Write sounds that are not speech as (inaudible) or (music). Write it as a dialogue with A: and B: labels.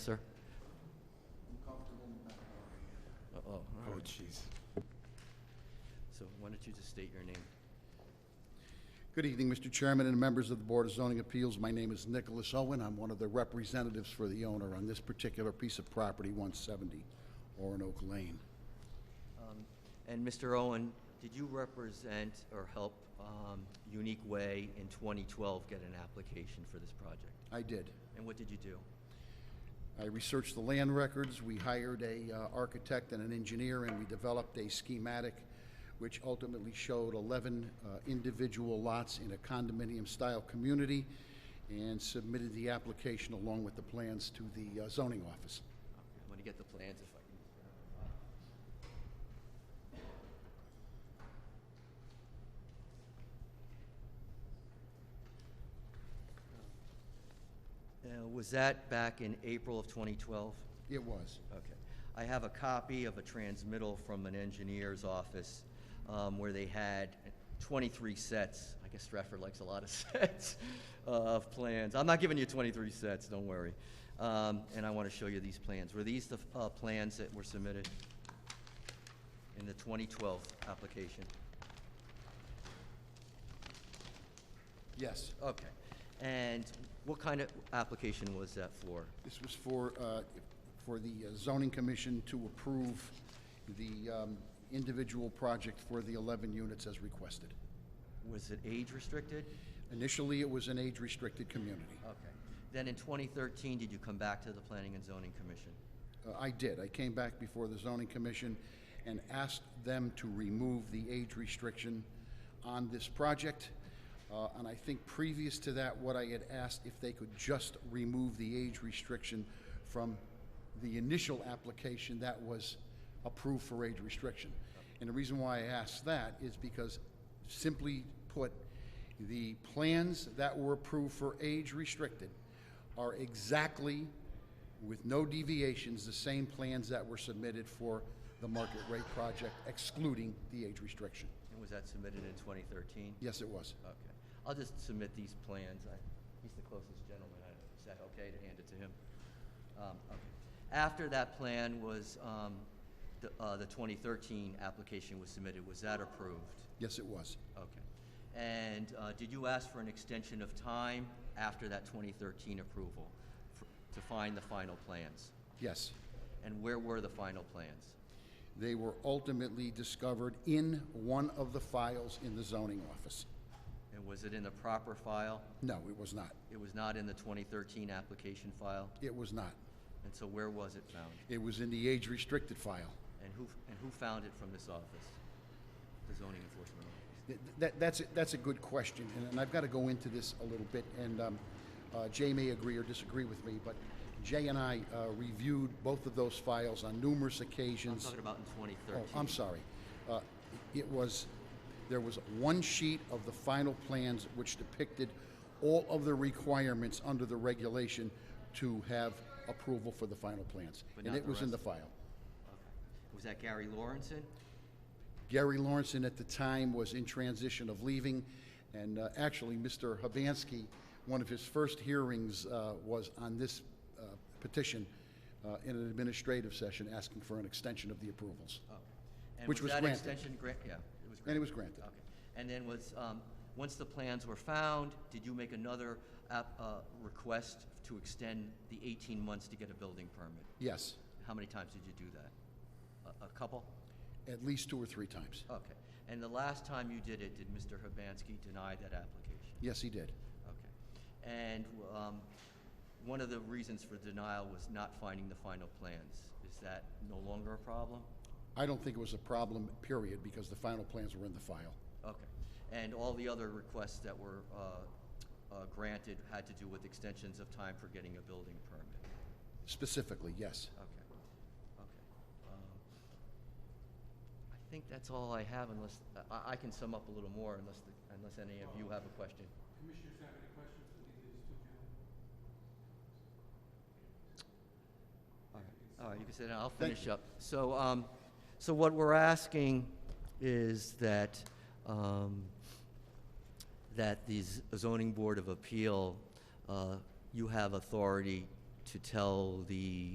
A: Sir? I'm comfortable in the back.
B: Oh,
A: Oh, all right.
B: jeez.
A: So why don't you just state your name?
C: Good evening, Mr. Chairman and members of the Board of Zoning Appeals. My name is Nicholas Owen. I'm one of the representatives for the owner on this particular piece of property, 170 Orinoco Lane.
A: Um, And Mr. Owen, did you represent or help um, Unique Way in 2012 get an application for this project?
C: I did.
A: And what did you do?
C: I researched the land records. We hired a uh, architect and an engineer, and we developed a schematic which ultimately showed 11 uh, individual lots in a condominium-style community and submitted the application along with the plans to the uh, zoning office.
A: I'm going to get the plans if I can. Uh, Was that back in April of 2012?
C: It was.
A: Okay. I have a copy of a transmittal from an engineer's office um, where they had 23 sets. I guess Stratford likes a lot of (laughs) sets uh, of plans. I'm not giving you 23 sets, don't worry. Um, And I want to show you these plans. Were these the uh, plans that were submitted in the 2012 application?
C: Yes.
A: Okay. And what kind of application was that for?
C: This was for, uh, for the uh, zoning commission to approve the um, individual project for the 11 units as requested.
A: Was it age restricted?
C: Initially, it was an age-restricted community.
A: Okay. Then in 2013, did you come back to the Planning and Zoning Commission?
C: Uh, I did. I came back before the zoning commission and asked them to remove the age restriction on this project. Uh, And I think previous to that, what I had asked if they could just remove the age restriction from the initial application that was approved for age restriction. And the reason why I asked that is because, simply put, the plans that were approved for age restricted are exactly with no deviations, the same plans that were submitted for the market rate project, excluding the age restriction.
A: And was that submitted in 2013?
C: Yes, it was.
A: Okay. I'll just submit these plans. I- He's the closest gentleman. I know. Is that okay to hand it to him? Um, okay. After that plan was, um, the uh, the 2013 application was submitted, was that approved?
C: Yes, it was.
A: Okay. And uh, did you ask for an extension of time after that 2013 approval for- to find the final plans?
C: Yes.
A: And where were the final plans?
C: They were ultimately discovered in one of the files in the zoning office.
A: And was it in the proper file?
C: No, it was not.
A: It was not in the 2013 application file?
C: It was not.
A: And so where was it found?
C: It was in the age restricted file.
A: And who, and who found it from this office? The zoning enforcement office?
C: Th- That, that's, a- that's a good question, and- and I've got to go into this a little bit, and um, uh, Jay may agree or disagree with me, but Jay and I uh, reviewed both of those files on numerous
A: I'm
C: occasions.
A: talking about in 2013.
C: Oh, I'm sorry. Uh, It was, there was one sheet of the final plans which depicted all of the requirements under the regulation to have approval for the final plans.
A: But
C: And
A: not
C: it
A: the
C: was in the
A: rest.
C: file.
A: Okay. Was that Gary Lawrenson?
C: Gary Lawrenson at the time was in transition of leaving, and uh, actually, Mr. Habansky, one of his first hearings uh, was on this uh, petition uh, in an administrative session, asking for an extension of the approvals.
A: Okay. Oh. And
C: Which was granted.
A: that extension grant, yeah, it was granted?
C: And it was granted.
A: Okay. And then was, um, once the plans were found, did you make another app, uh, request to extend the 18 months to get a building permit?
C: Yes,
A: How many times did you do that? A, a couple?
C: at least two or three times.
A: Okay. And the last time you did it, did Mr. Hibansky deny that application?
C: Yes, he did.
A: Okay. And um, one of the reasons for denial was not finding the final plans. Is that no longer a problem?
C: I don't think it was a problem, period, because the final plans were in the file.
A: Okay. And all the other requests that were uh, uh, granted had to do with extensions of time for getting a building permit?
C: Specifically, yes.
A: Okay, okay. Um, I think that's all I have unless, I, I can sum up a little more unless, the- unless any of you have a question.
D: Commissioners have any questions for these two gentlemen?
A: All right, all right, you can sit down, I'll finish up. So, um, so what we're asking is that, um, that the z- zoning board of appeal, uh, you have authority to tell the